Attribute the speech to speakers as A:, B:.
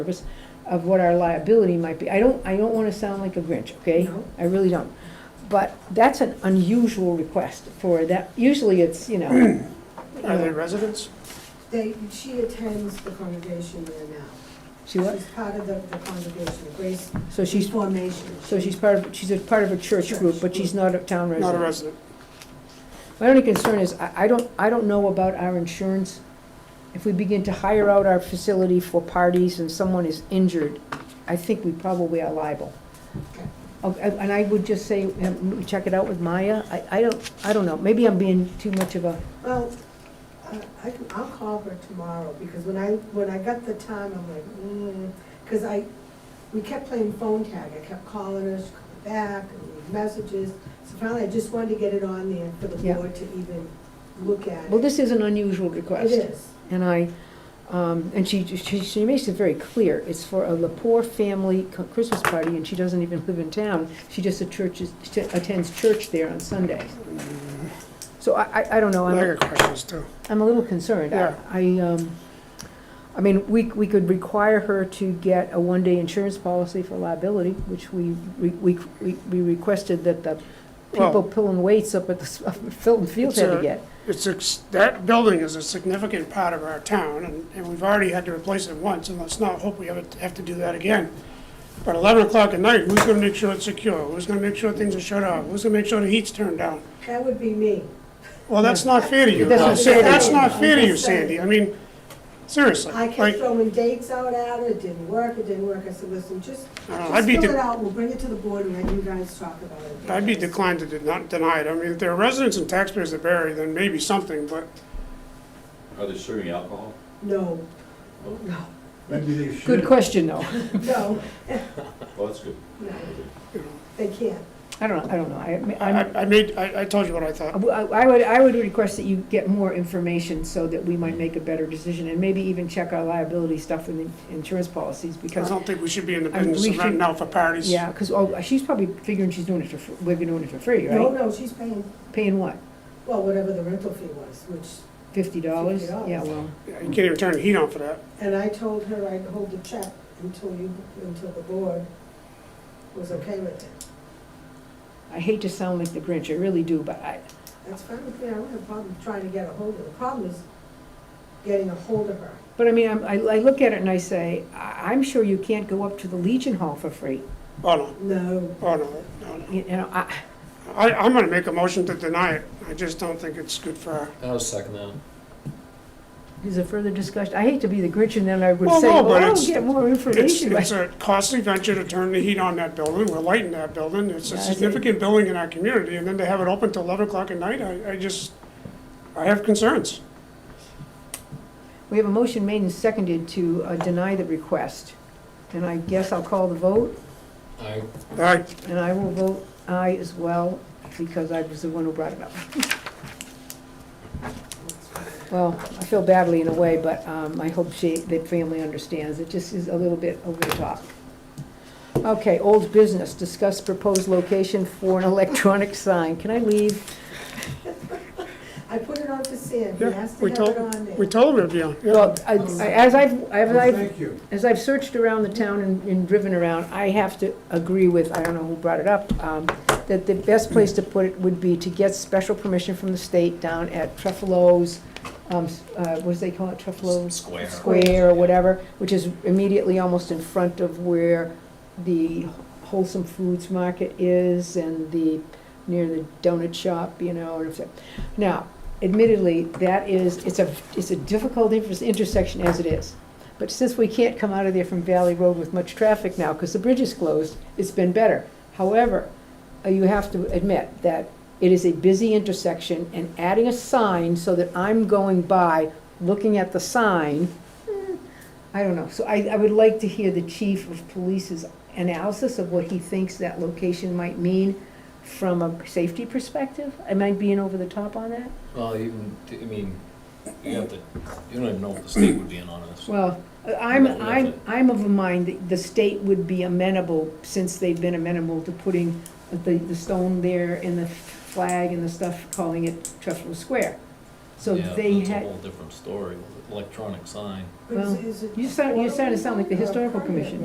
A: service of what our liability might be. I don't, I don't want to sound like a Grinch, okay?
B: No.
A: I really don't. But that's an unusual request for that. Usually it's, you know,
C: Are they residents?
B: They, she attends the congregation there now.
A: she was,
B: She's part of the, the congregation, the Grace
A: so she's,
B: Formation.
A: so she's part of, she's a part of a church group, but she's not a town
C: Not a
A: resident.
C: resident.
A: My only concern is, I, I don't, I don't know about our insurance. If we begin to hire out our facility for parties and someone is injured, I think we probably are liable.
B: Okay.
A: Oh, And and I would just say, um, check it out with Maya. I, I don't, I don't know. Maybe I'm being too much of a,
B: Well, uh, I can, I'll call her tomorrow, because when I, when I got the time, I'm like, mm, because I, we kept playing phone tag, I kept calling her, she called back, and leave messages. So finally, I just wanted to get it on there for the
A: Yeah.
B: board to even look at
A: well,
B: it.
A: this is an unusual
B: It
A: request.
B: is,
A: And I, um, and she, she, she makes it very clear, it's for a Lepore family co- Christmas party, and she doesn't even live in town. She just churches, attends church there on Sundays. So I, I, I don't know,
C: Oh, I
A: I'm,
C: got questions too.
A: I'm a little concerned. I-
C: Yeah.
A: I, um, I mean, we, we could require her to get a one-day insurance policy for liability, which we, we, we we requested that the people
C: Well-
A: pulling weights up at the s- up at Filton Field
C: It's
A: had to
C: a-
A: get.
C: It's, ex- that building is a significant part of our town, and, and we've already had to replace it once, and let's not hope we ever have to do that again. But eleven o'clock at night, who's gonna make sure it's secure? Who's gonna make sure things are shut off? Who's gonna make sure the heat's turned down?
B: that would be me.
C: Well, that's not fair to you.
A: That's what I'm
C: Sandy. That's
B: saying.
C: not fair to you,
B: I'm just saying.
C: Sandy. I mean, seriously.
B: I
C: like-
B: kept throwing dates out at her, it didn't work, it didn't work, I said, listen, just,
C: Uh, I'd
B: just
C: be
B: fill
C: de-
B: it out, we'll bring it to the board and let you guys talk about it.
C: I'd be declined to de- not deny it. I mean, if there are residents and taxpayers that vary, then maybe something, but
D: Are they serving alcohol?
B: No, no,
E: Maybe they should.
A: Good question, though.
B: no,
D: Well, that's good.
B: no, they can't.
A: I don't, know. I don't know, I, I'm.
C: I, I made, I, I told you what I thought.
A: I I would, I would request that you get more information so that we might make a better decision and maybe even check our liability stuff in the insurance policies
C: I
A: because,
C: don't think we should be in the
A: I mean,
C: business
A: we
C: of renting
A: should-
C: out for parties.
A: yeah, because, oh, she's probably figuring she's doing it for, fr- we're doing it for free,
B: No,
A: right?
B: no, she's paying,
A: Paying what,
B: well, whatever the rental fee was, which,
A: fifty dollars?
B: $50.
A: Yeah, well,
C: Yeah, You can't even turn the heat on for that.
B: and I told her I'd hold the check until you, until the board was okay with it.
A: I hate to sound like the Grinch, I really do, but I,
B: That's fine with me, I don't have a problem trying to get a hold of her. The problem is getting a hold of her.
A: but I mean, I'm- I, I look at it and I say, I, I'm sure you can't go up to the Legion Hall for free.
C: Oh, no,
B: No,
C: oh, no, no, no.
A: You know, I,
C: I, I'm gonna make a motion to deny it. I just don't think it's good for our.
F: I was second that.
A: is there further discussion? I hate to be the Grinch and then I would
C: Well,
A: say,
C: no,
A: well,
C: but
A: I'll
C: it's-
A: get more
C: It's,
A: information.
C: it's a costly venture to turn the heat on that building. We're lighting that building. It's
A: Yeah,
C: a
A: I think-
C: significant building in our community, and then to have it open till eleven o'clock at night, I, I just, I have concerns.
A: We have a motion made and seconded to uh, deny the request. And I guess I'll call the vote,
C: All
F: I,
C: right,
A: and I will vote aye as well, because I was the one who brought it up. Well, I feel badly in a way, but um, I hope she, the family understands. It just is a little bit over the top. Okay, old business, discuss proposed location for an electronic sign. Can I leave?
B: I put it on to Sam, he
C: yeah,
B: has to
C: we
B: have it
C: told,
B: on there.
C: we told them it'd be on. Yeah.
A: Well, I- I- as I've, as
E: Well,
A: I've
E: Thank you.
A: As I've searched around the town and, and driven around, I have to agree with, I don't know who brought it up, um, that the best place to put it would be to get special permission from the state down at Truffalo's, um, s- uh, what do they call it, Truffalo's?
F: Square.
A: Square or whatever, which is immediately almost in front of where the Wholesome Foods Market is and the, near the donut shop, you know, and if it- now, admittedly, that is, it's a, it's a difficult inter- intersection as it is. But since we can't come out of there from Valley Road with much traffic now, because the bridge is closed, it's been better. However, uh, you have to admit that it is a busy intersection, and adding a sign so that I'm going by, looking at the sign, eh, I don't know. So I, I would like to hear the chief of police's analysis of what he thinks that location might mean from a safety perspective. Am I being over the top on that?
F: well, even, I mean, you have to, you don't even know if the state would be in on this.
A: Well, I'm,
F: Not worth
A: I'm,
F: it.
A: I'm of a mind that the state would be amenable, since they've been amenable to putting the, the stone there and the flag and the stuff, calling it Truffalo Square. So
F: Yeah,
A: they
F: That's a
A: had,
F: whole different story, with electronic sign.
B: But is- is it-
A: you sound, you sound, it sound like the historical commission.